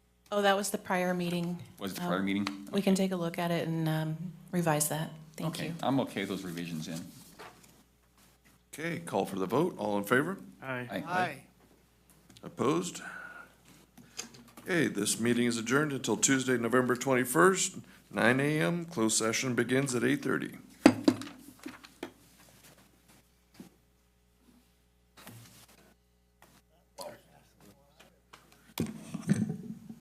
Oh, that was the prior meeting. Was the Um, prior meeting? We can take a look at it and um, revise that. Thank Okay, you. I'm okay with those revisions in. Okay, call for the vote. All in favor? Aye. Aye. Opposed? Okay, this meeting is adjourned until Tuesday, November 21st, 9 a.m. Closed session begins at 8:30.